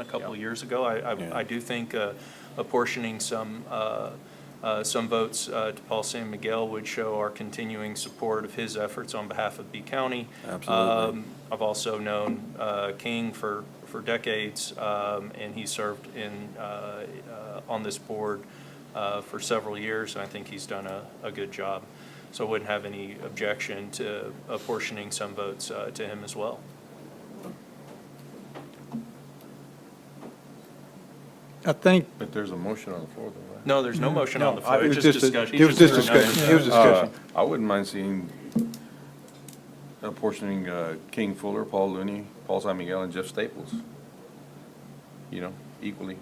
a couple of years ago. I, I- I do think uh, apportioning some, uh, uh, some votes uh, to Paul San Miguel would show our continuing support of his efforts on behalf of B County. Absolutely. Um, I've also known uh, King for, for decades, um, and he served in, uh, uh, on this board uh, for several years, and I think he's done a, a good job. So I wouldn't have any objection to apportioning some votes uh, to him as well. I think, But there's a motion on the floor, though, right? No, there's no motion on the No, floor, I- it's it just was just a- discussion. it was He's just threw another- discussion. It was discussion. Uh, I wouldn't mind seeing apportioning uh, King Fuller, Paul Looney, Paul San Miguel, and Jeff Staples. You know, equally.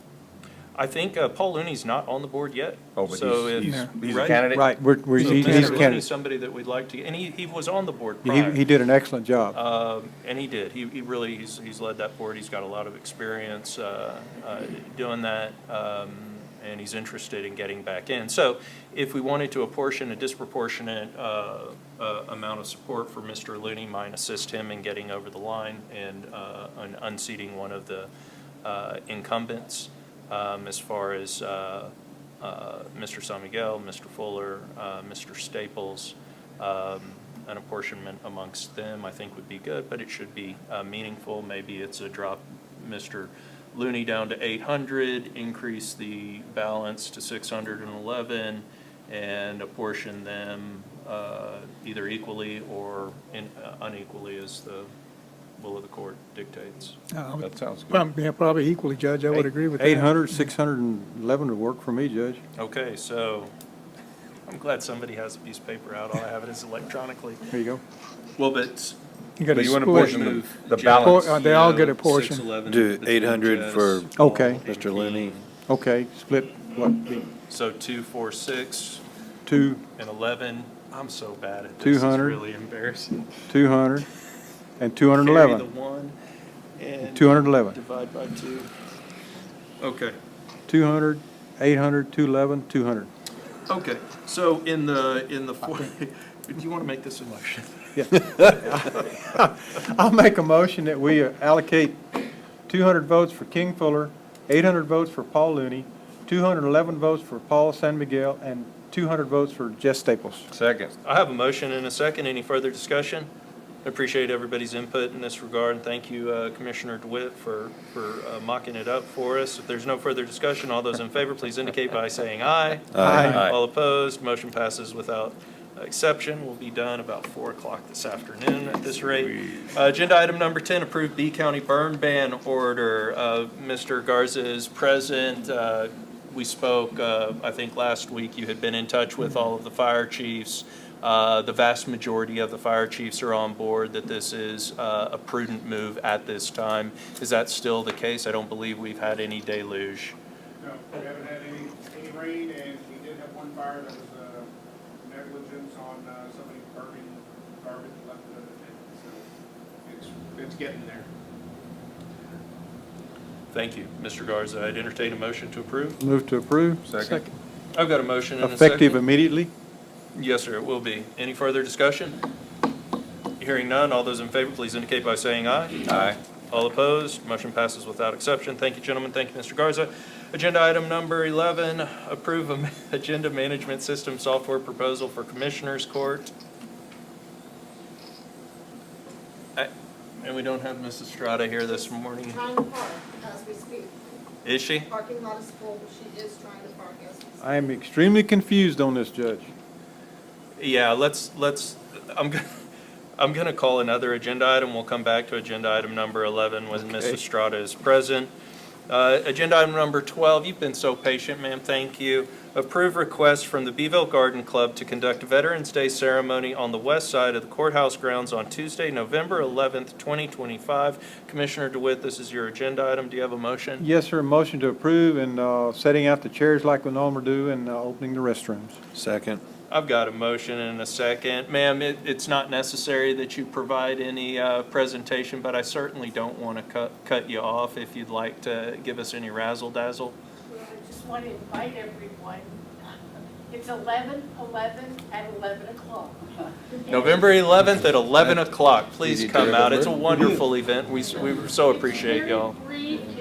I think uh, Paul Looney's not on the board yet. Oh, but so he's- if- he's, he's a right? candidate. right, we're, we're, So he's he's a Mr. Looney's candidate. somebody that we'd like to, and he, he was on the board He, prior. he did an excellent Uh, job. Um, And he did. He, he really, he's, he's led that board. He's got a lot of experience uh, uh, doing that, um, and he's interested in getting back in. So if we wanted to apportion a disproportionate uh, uh, amount of support for Mr. Looney, might assist him in getting over the line and uh, and unseating one of the uh, incumbents um, as far as uh, uh, Mr. San Miguel, Mr. Fuller, uh, Mr. Staples, um, an apportionment amongst them, I think would be good, but it should be uh, meaningful. Maybe it's a drop Mr. Looney down to 800, increase the balance to 611, and apportion them uh, either equally or in- uh, unequally as the will of the court dictates. Uh, That sounds good. Probably, yeah, probably equally, Judge, I would agree with that. 800, 611 would work for me, Judge. Okay, so I'm glad somebody has a piece of paper out. All I have it is electronically. There you go. Well, but You got But a you wanna split. portion the- move the Jeff, balance. Por- uh, they all get a Leo, portion. 611, Do Bethune 800 for Jess, Okay. Mr. Looney. Okay, split, what, the So two, four, six, two, and 11. I'm so bad at this. It's 200. really embarrassing. 200, and Carry 211. the one and 211. divide by two. Okay. 200, 800, 211, 200. Okay, so in the, in the, four- do you want to make this a motion? I'll make a motion that we allocate 200 votes for King Fuller, 800 votes for Paul Looney, 211 votes for Paul San Miguel, and 200 votes for Jess Staples. Second. I have a motion and a second. Any further discussion? I Appreciate everybody's input in this regard, and thank you, uh, Commissioner DeWitt, for, for uh, mocking it up for us. If there's no further discussion, all those in favor, please indicate by saying aye. Aye. Aye. All opposed, motion passes without exception. We'll be done about 4 o'clock this afternoon at this rate. Uh, Agenda item number 10, approve B County burn ban order. Uh, Mr. Garza is present. Uh, We spoke, uh, I think last week, you had been in touch with all of the fire chiefs. Uh, The vast majority of the fire chiefs are on board that this is uh, a prudent move at this time. Is that still the case? I don't believe we've had any deluge. No, we haven't had any, any rain, and we did have one fire that was, uh, negligence on, uh, somebody burning garbage left the other day, so it's, it's getting there. Thank you, Mr. Garza. I'd entertain a motion to approve. Move to approve. Second. I've got a motion and a second. Effective immediately. Yes, sir, it will be. Any further discussion? Hearing none, all those in favor, please indicate by saying aye. Aye. All opposed, motion passes without exception. Thank you, gentlemen, thank you, Mr. Garza. Agenda item number 11, approve am- agenda management system software proposal for Commissioners Court. I- And we don't have Mrs. Strata here this morning, Trying to park as we speak. is she? Parking lot is full, she is trying to park as we speak. I am extremely confused on this, Judge. Yeah, let's, let's, I'm, go- I'm going to call another agenda item. We'll come back to agenda item number 11 when Mrs. Strata is present. Uh, Agenda item number 12, you've been so patient, ma'am, thank you. Approve request from the Beeville Garden Club to conduct Veterans Day ceremony on the west side of the courthouse grounds on Tuesday, November 11th, 2025. Commissioner DeWitt, this is your agenda item. Do you have a motion? Yes, sir, motion to approve and uh, setting out the chairs like we normally do and uh, opening the restrooms. Second. I've got a motion and a second. Ma'am, it, it's not necessary that you provide any, uh, presentation, but I certainly don't want to cut, cut you off if you'd like to give us any razzle dazzle. Well, I just want to invite everyone. It's 11, 11 at 11 o'clock. November eleventh at eleven o'clock, please Did you come do out. it? It's a wonderful event. We, s- we so appreciate y'all. It's very brief,